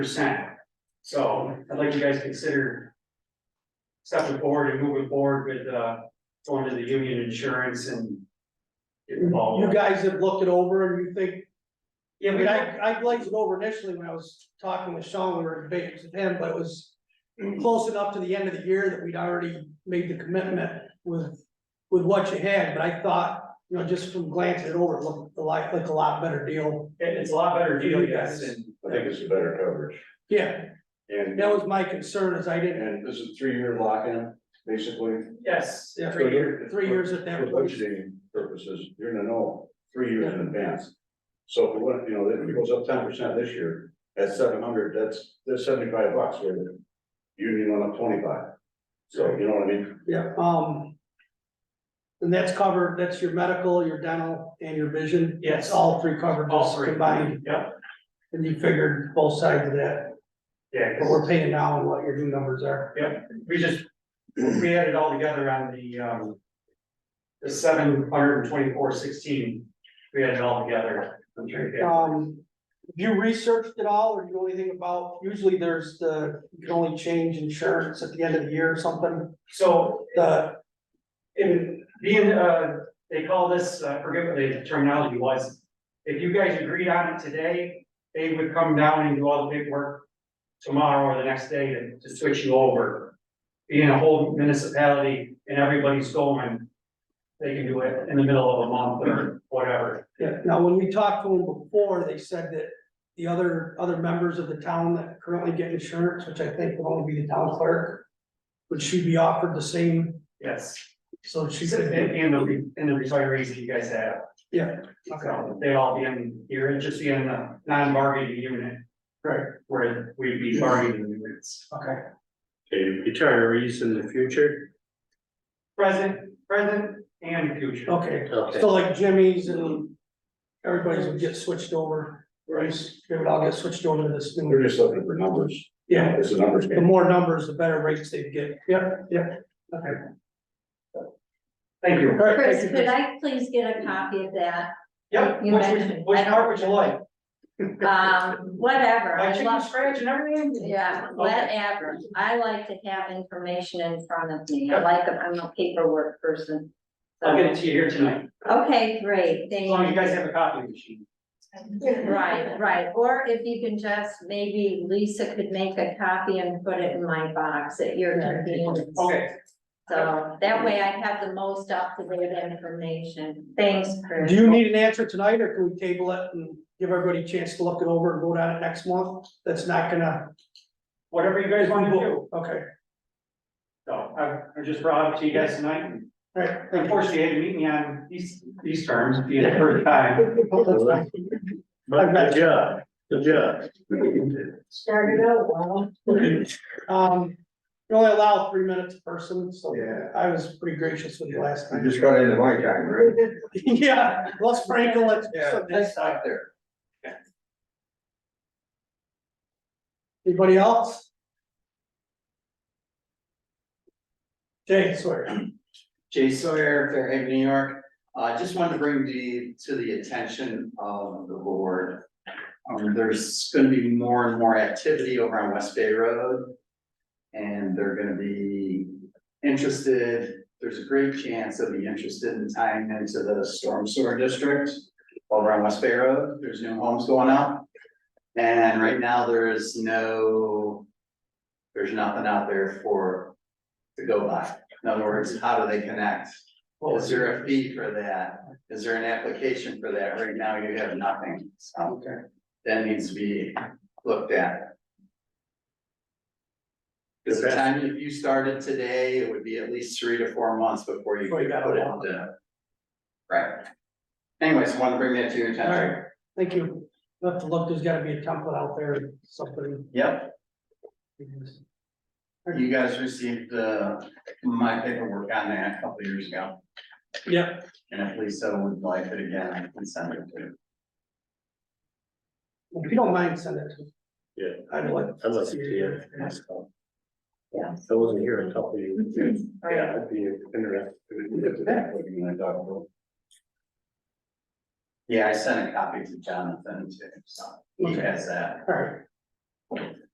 percent. So I'd like you guys to consider. Stepping forward and moving forward with uh going to the union insurance and. Get You involved. guys have looked it over and you think, I Yeah, we mean, got, I, I glazed it over initially when I was talking with Sean, we were debating with him, but it was. Close enough to the end of the year that we'd already made the commitment with, with what you had, but I thought, you know, just from glancing it over, it looked like, like a lot better deal. it- it's a lot better deal, yes, and I think it's a better coverage. Yeah, And, that was my concern is I didn't, and this is three-year lock-in, basically. yes, Yeah. three year, three years at For that rate. budgeting purposes, you're gonna know three years in advance. So if it went, you know, if it goes up ten percent this year, at seven hundred, that's, that's seventy-five bucks, where the union went up twenty-five. So, you know what I mean? Yeah, um. And that's covered, that's your medical, your dental and your vision. Yes. It's All three covered, all just three combined. Yep, And you figured both sides of that, yeah, what 'cause we're paying now and what your new numbers are. we just, we had it all together on the um. The seven hundred and twenty-four sixteen, we had it all together. I'm sure, yeah. Um, have you researched it all or do you know anything about, usually there's the, you can only change insurance at the end of the year or something, So the, in being, uh, they call this, I forget what the terminology was. If you guys agreed on it today, they would come down and do all the paperwork tomorrow or the next day to, to switch you over. Being a whole municipality and everybody's going, they can do it in the middle of a month or whatever. now, when we talked to them before, they said that the other, other members of the town that currently get insurance, which I think would only be the town clerk, would she be offered the same, Yes, so she and, said, and the, and the retirees that you guys have, yeah, okay, so they'd all be in, you're just be in the non-bargaining unit. Right. Where we'd be bargaining units. okay. to retirees in the future. Present, present and future. Okay, Okay. so like Jimmy's and everybody's would get switched over, right? They would all get switched over to this They're new, just looking for numbers. yeah, It's a numbers the game. more numbers, the better rates they'd get, yep, yep, okay. Thank you. All right, Chris, thank you, could I please get a copy of that? Yep, You which, mentioned- which I don't- part would you like? Um, whatever, Like I chicken love, scratch and everything? yeah, Okay. whatever. I like to have information in front of me. I like, I'm a paperwork person. I'll get So, it to you here tonight, okay, great, as long as you thank guys have a copy machine. you. Right, right, or if you can just, maybe Lisa could make a copy and put it in my box at your convenience. Okay, So that way I have the most up-to-date information. Thanks, Chris. do you need an answer tonight, or can we table it and give everybody a chance to look it over and vote on it next month? That's not gonna. whatever you guys want to do, Okay, so I, I just brought it to you guys tonight. all right, thank you. Unfortunately, you had to meet me on these, these terms, being the first time. Oh, that's fine. But good job, good job. Started out well. Um, you only allow three minutes a person, so Yeah. I was pretty gracious with you last time. just got into my time, right? Yeah, let's sprinkle it. That's not there. Anybody else? Jay Sawyer, Jay Sawyer, Fairhaven, New York. Uh, just wanted to bring the, to the attention of the board. Um, there's gonna be more and more activity over on West Bay Road. And they're gonna be interested, there's a great chance they'll be interested in tying into the storm sewer district. Over on West Bay Road, there's new homes going up. And right now, there is no, there's nothing out there for, to go by. In other words, how do they connect? Is there a fee for that? Is there an application for that? Right now, you have nothing, so. Okay. That needs to be looked at. Because the Okay. time, if you started today, it would be at least three to four months before you Before you could got a put it lot. into. Right. Anyways, want to bring that to your attention. alright, thank you. We'll Have to look, there's gotta be a template out there, something. Yep, you guys received, uh, my paperwork on that a couple years ago, Yep, and if Lisa would like it again, I can send it to you. if you don't mind, send it to. me. Yeah. I'd like. I was here. Yeah. I wasn't here a couple of years. Yeah, I'd be interested. Yeah, I sent a copy to Jonathan too, so he Okay. has that. Alright.